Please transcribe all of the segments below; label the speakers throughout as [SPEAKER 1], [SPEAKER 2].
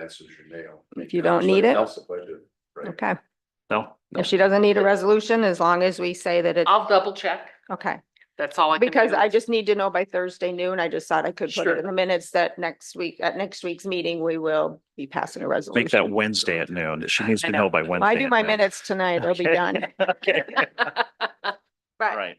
[SPEAKER 1] answers your nail.
[SPEAKER 2] If you don't need it,
[SPEAKER 1] Else the budget, right?
[SPEAKER 2] okay.
[SPEAKER 3] No, no.
[SPEAKER 2] If she doesn't need a resolution, as long as we say that it,
[SPEAKER 4] I'll double check.
[SPEAKER 2] okay.
[SPEAKER 4] That's all I can do.
[SPEAKER 2] Because I just need to know by Thursday noon. I just thought I could put
[SPEAKER 4] Sure.
[SPEAKER 2] it in the minutes that next week, at next week's meeting, we will be passing a resolution.
[SPEAKER 3] Make that Wednesday at noon. She needs
[SPEAKER 4] I
[SPEAKER 3] to
[SPEAKER 4] know.
[SPEAKER 3] know by
[SPEAKER 2] When
[SPEAKER 3] Wednesday.
[SPEAKER 2] I do
[SPEAKER 3] at
[SPEAKER 2] my
[SPEAKER 3] noon.
[SPEAKER 2] minutes tonight, they'll be
[SPEAKER 3] Okay.
[SPEAKER 2] done.
[SPEAKER 3] Okay, all
[SPEAKER 2] But
[SPEAKER 3] right.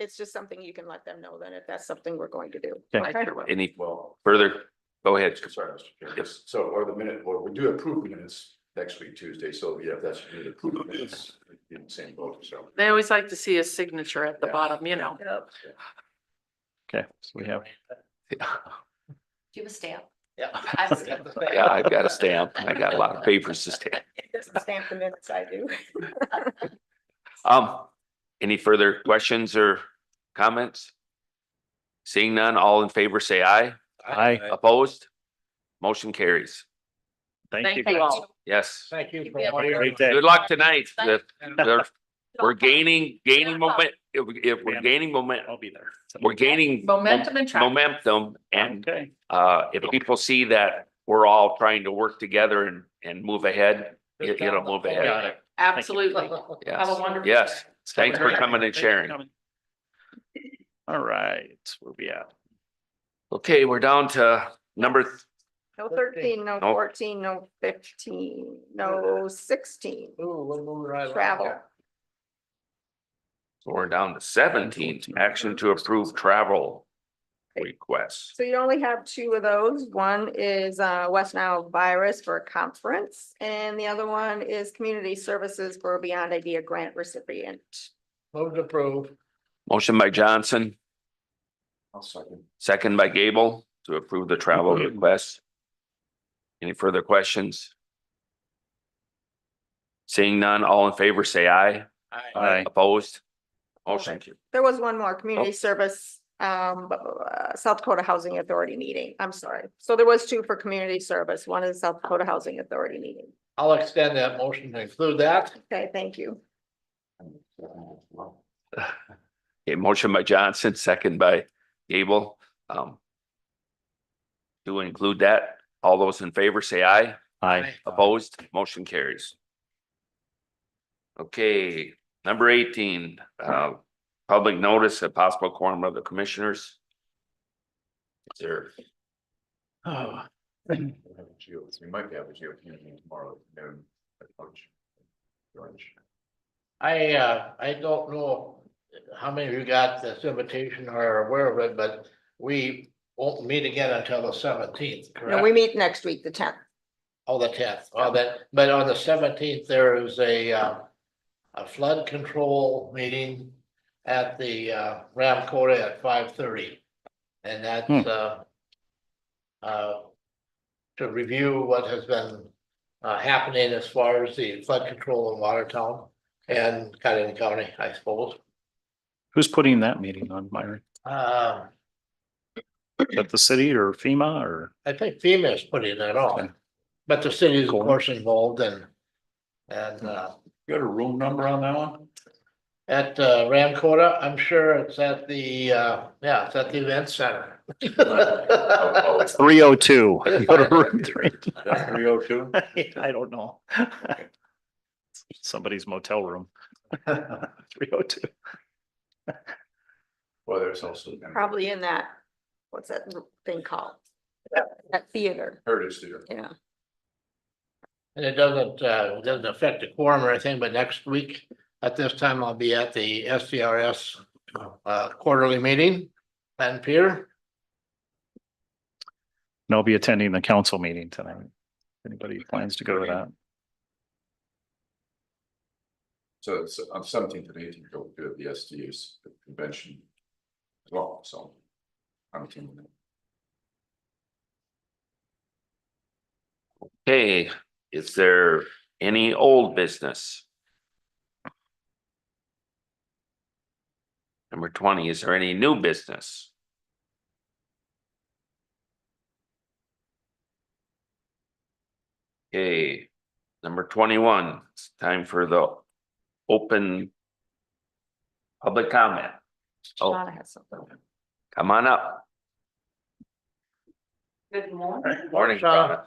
[SPEAKER 2] it's just something you can let them know then if that's something we're going to do.
[SPEAKER 3] Okay.
[SPEAKER 2] Okay?
[SPEAKER 5] Any
[SPEAKER 1] Well,
[SPEAKER 5] further? Go ahead.
[SPEAKER 1] sorry, Mr. Chair. Yes, so, or the minute, well, we do approve minutes next week, Tuesday, so yeah, that's, you need approval minutes in the same vote, so.
[SPEAKER 4] They always like to see a signature at the
[SPEAKER 1] Yeah.
[SPEAKER 4] bottom, you know.
[SPEAKER 3] Okay, so we have,
[SPEAKER 6] Do you have a stamp?
[SPEAKER 7] Yeah.
[SPEAKER 6] I was gonna
[SPEAKER 5] Yeah, I've got a stamp. I got a lot of papers to stamp.
[SPEAKER 2] It doesn't stamp the minutes I do.
[SPEAKER 5] Um, any further questions or comments? Seeing none, all in favor, say aye.
[SPEAKER 3] I,
[SPEAKER 5] Opposed? Motion carries.
[SPEAKER 3] thank you.
[SPEAKER 4] Thank you all.
[SPEAKER 5] Yes.
[SPEAKER 7] Thank you.
[SPEAKER 6] Yeah.
[SPEAKER 7] for what you're
[SPEAKER 3] Great
[SPEAKER 7] doing.
[SPEAKER 3] day.
[SPEAKER 5] Good luck tonight. The- the- We're gaining, gaining moment, if, we- if we're gaining moment,
[SPEAKER 3] I'll be there.
[SPEAKER 5] we're gaining
[SPEAKER 4] Momentum and traction.
[SPEAKER 5] momentum and
[SPEAKER 3] Okay,
[SPEAKER 5] uh, if people see that we're all trying to work together and, and move ahead, it- it'll move
[SPEAKER 3] got
[SPEAKER 5] ahead.
[SPEAKER 3] it.
[SPEAKER 4] Absolutely. Have a
[SPEAKER 5] Yes,
[SPEAKER 4] wonderful.
[SPEAKER 5] yes.
[SPEAKER 4] day.
[SPEAKER 5] Thanks for coming and
[SPEAKER 3] Thanks for
[SPEAKER 5] sharing.
[SPEAKER 3] coming. All right, where we at?
[SPEAKER 5] Okay, we're down to number, th-
[SPEAKER 2] No thirteen, no
[SPEAKER 5] No.
[SPEAKER 2] fourteen, no fifteen, no sixteen.
[SPEAKER 7] Ooh, we'll move right along.
[SPEAKER 2] Travel.
[SPEAKER 5] we're down to seventeen, action to approve travel requests.
[SPEAKER 2] So you only have two of those. One is uh West Nile virus for a conference and the other one is community services for a Beyond Idea grant recipient.
[SPEAKER 7] Move to approve.
[SPEAKER 5] Motion by Johnson,
[SPEAKER 1] I'll second.
[SPEAKER 5] second by Gable to approve the travel request. Any further questions? Seeing none, all in favor, say aye.
[SPEAKER 3] Aye.
[SPEAKER 5] Opposed? Motion
[SPEAKER 2] There was one more community
[SPEAKER 5] Oh.
[SPEAKER 2] service, um, bu- bu- uh, South Dakota Housing Authority meeting. I'm sorry. So there was two for community service. One is South Dakota Housing Authority meeting.
[SPEAKER 7] I'll extend that motion to include that.
[SPEAKER 2] Okay, thank you.
[SPEAKER 5] Okay, motion by Johnson, second by Gable. Um. To include that, all those in favor say aye.
[SPEAKER 3] Aye.
[SPEAKER 5] Opposed, motion carries. Okay, number eighteen, uh, public notice of possible quorum of the commissioners. Is there,
[SPEAKER 3] Oh,
[SPEAKER 1] We'll have a geo- We might be having a GOP meeting tomorrow at noon at lunch. Lunch.
[SPEAKER 7] I, uh, I don't know how many of you got this invitation or are aware of it, but we won't meet again until the seventeenth,
[SPEAKER 2] No, we
[SPEAKER 7] correct?
[SPEAKER 2] meet next week, the tenth.
[SPEAKER 7] Oh, the tenth, oh, that, but on the seventeenth, there is a, uh, a flood control meeting at the, uh, Ram Cota at five thirty. And that's,
[SPEAKER 3] Hmm.
[SPEAKER 7] uh, uh, to review what has been, uh, happening as far as the flood control in Watertown and Cudahy County, I suppose.
[SPEAKER 3] Who's putting that meeting on, Myron?
[SPEAKER 7] Uh,
[SPEAKER 3] Is that the city or FEMA or?
[SPEAKER 7] I think FEMA is putting that
[SPEAKER 3] Okay.
[SPEAKER 7] on, but the city is of
[SPEAKER 3] Cool.
[SPEAKER 7] course involved and, and, uh,
[SPEAKER 3] You got a room number on that one?
[SPEAKER 7] At uh, Ram Cota, I'm sure it's at the, uh, yeah, it's at the event center.
[SPEAKER 3] Three oh two. I
[SPEAKER 1] That's three oh two?
[SPEAKER 3] don't know. Somebody's motel room. Three oh two.
[SPEAKER 1] Well, there's also.
[SPEAKER 2] probably in that, what's that thing called? That theater,
[SPEAKER 1] Heritage Theater.
[SPEAKER 2] yeah.
[SPEAKER 7] And it doesn't, uh, it doesn't affect the quorum or anything, but next week at this time, I'll be at the SDRS uh, quarterly meeting. And Peter,
[SPEAKER 3] And I'll be attending the council meeting tonight. Anybody plans to go to that?
[SPEAKER 1] So it's um, on seventeenth and eighteenth, go to the SDU's convention. as Well, so. I'm teaming it.
[SPEAKER 5] hey, is there any old business? Number twenty, is there any new business? Okay, number twenty-one, it's time for the open public comment. Oh.
[SPEAKER 2] Donna has something.
[SPEAKER 5] Come on up.
[SPEAKER 8] Good morning.
[SPEAKER 5] Morning,
[SPEAKER 4] Sean.
[SPEAKER 5] Donna.